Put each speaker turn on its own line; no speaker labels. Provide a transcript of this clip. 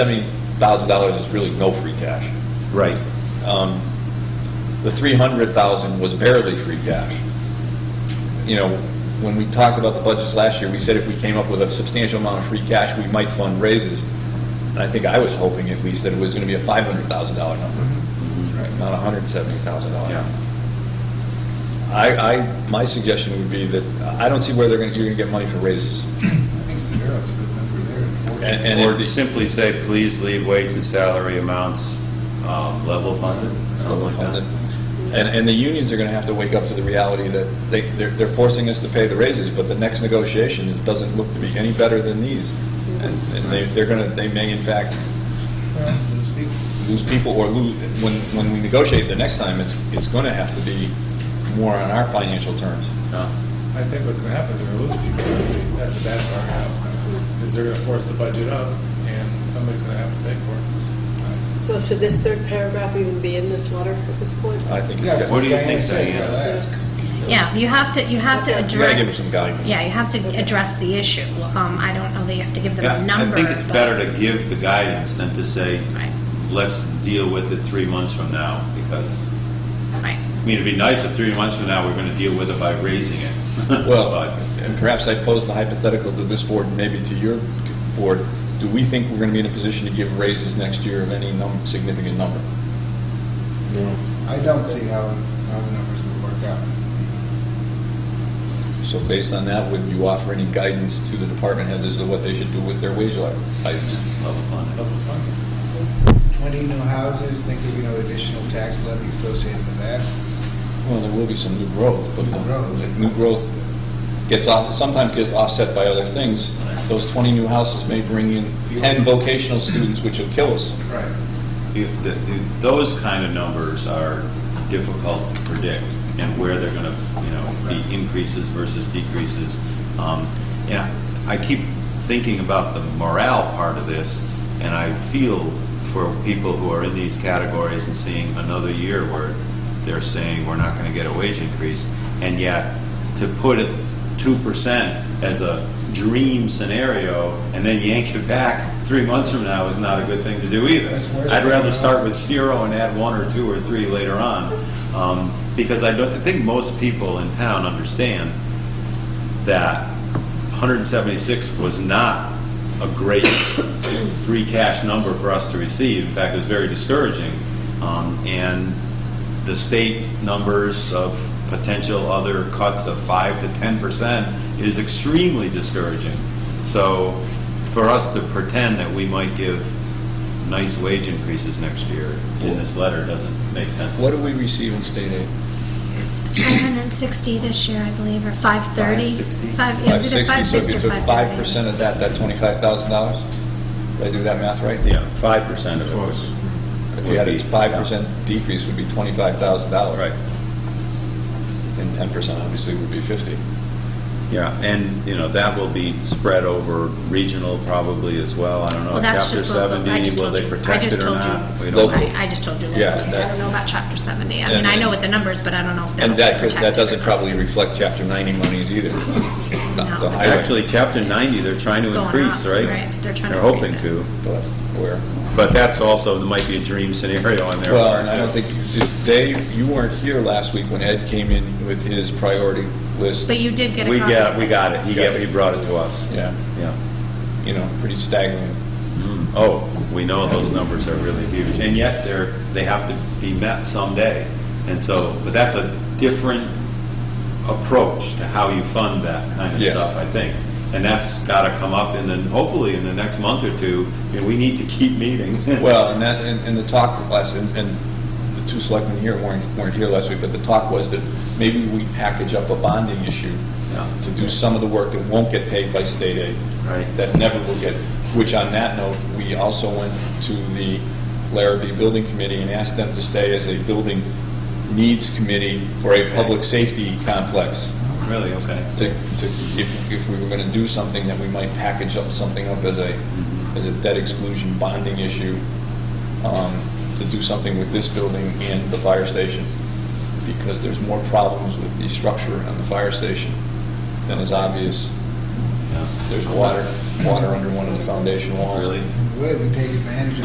seventy thousand dollars is really no free cash.
Right.
The three hundred thousand was barely free cash. You know, when we talked about the budgets last year, we said if we came up with a substantial amount of free cash, we might fund raises. And I think I was hoping at least that it was gonna be a five hundred thousand dollar number, not a hundred and seventy thousand dollar.
Yeah.
I, I, my suggestion would be that, I don't see where they're gonna, you're gonna get money for raises.
I think zero is a good number there.
And,
unfortunately.
and if
Or
the-
simply say, please leave wage and salary amounts um, level funded, something like that.
And, and the unions are going to have to wake up to the reality that they, they're, they're forcing us to pay the raises, but the next negotiation is, doesn't look to be any better than these. And, and they, they're going to, they may in fact
Well, those people-
lose people or lose, when, when we negotiate the next time, it's, it's going to have to be more on our financial terms.
No.
I think what's gonna happen is we're gonna lose people, that's, the- that's a bad part now, because they're gonna force the budget up, and somebody's gonna have to pay for it.
So should this third paragraph even be in this letter at this point?
I think it's,
Yeah,
got-
What do you think,
Diane says
Diane?
that last.
Yeah, you have to, you have to
Okay.
address.
You gotta give them some guidance.
Yeah, you have to address the issue. Um, I don't know that you have to give them
Yeah,
a number.
I think it's
but-
better to give the guidance than to say,
Right.
let's deal with it three months from now, because,
Right.
I mean, it'd be nice if three months from now, we're gonna deal with it by raising it.
well,
But-
and perhaps I pose the hypothetical to this board, and maybe to your board, do we think we're going to be in a position to give raises next year of any num, significant number?
I don't see how, how the numbers would work out.
So based on that, would you offer any guidance to the department heads as to what they should do with their wage li- items?
Level funded.
Level funded.
Twenty new houses, think there'd be no additional tax levy associated with that.
Well, there will be some new growth, but
New growth.
new growth gets, off- sometimes gets offset by other things. Those 20 new houses may bring in 10 vocational students, which will kill us.
Right.
If, the- if those kind of numbers are difficult to predict, and where they're gonna, you know, be increases versus decreases. Um, And I keep thinking about the morale part of this, and I feel for people who are in these categories and seeing another year where they're saying, we're not gonna get a wage increase, and yet, to put it two percent as a dream scenario, and then yank it back three months from now is not a good thing to do either.
That's worse.
I'd rather start with zero and add one or two or three later on, um, because I don't, I think most people in town understand that 176 was not a great free cash number for us to receive. In fact, it was very discouraging. Um, And the state numbers of potential other cuts of 5 to 10% is extremely discouraging. So for us to pretend that we might give nice wage increases next year in this letter doesn't make sense.
What do we receive in state aid?
560 this year, I believe, or 530.
560?
Five- is it
560, so if
a
you
560 or
took
530?
5% of that, that's $25,000? Did I do that math right?
Yeah, 5% of it was.
If you had a
Would be,
5% decrease, would be $25,000.
Right.
And 10% obviously would be 50.
Yeah, and, you know, that will be spread over regional probably as well. I don't know,
Well,
uh,
that's
chapter
just local. I
70,
just
will
told
they
you- I
protect
just
it or
told you.
not? We
Local.
don't know.
I, I just told you.
Yeah,
locally.
that-
I don't know about chapter 70. I
And-
mean, I know what the numbers, but I don't know if
And
they're
that, could-
protected.
that doesn't
or not.
probably reflect Chapter 90 monies either. The-
No.
the highway.
Actually, chapter 90, they're trying to
Going
increase,
up,
right?
right, they're trying to
hoping
increase it.
to,
But where?
but that's also, there might be a dream scenario in there.
Well, and I don't think, they, you weren't here last week when Ed came in with his priority list.
But you did get a
We
copy.
got, we got it. He got- he brought it to us.
Yeah,
Yeah.
you know, pretty staggering.
Oh, we know those numbers are really huge, and yet they're, they have to be met someday. And so, but that's a different approach to how you fund that kind of
Yes.
stuff, I think. And that's got to come up in the, hopefully in the next month or two, and we need to keep meeting.
Well, and that, and, and the talk last, and, and the two selectmen here weren't, weren't here last week, but the talk was that maybe we package up a bonding issue
Yeah.
to do some of the work that won't get paid by state aid.
Right.
That never will get, which on that note, we also went to the Larrabee Building Committee and asked them to stay as a building needs committee for a public safety complex
Really, okay.
to, to, if, if we were gonna do something, that we might package up something up as a, as a debt exclusion bonding issue, um, to do something with this building and the fire station, because there's more problems with the structure on the fire station than is obvious.
Yeah.
There's water, water under one of the foundation walls.
Really?
And way, we take advantage of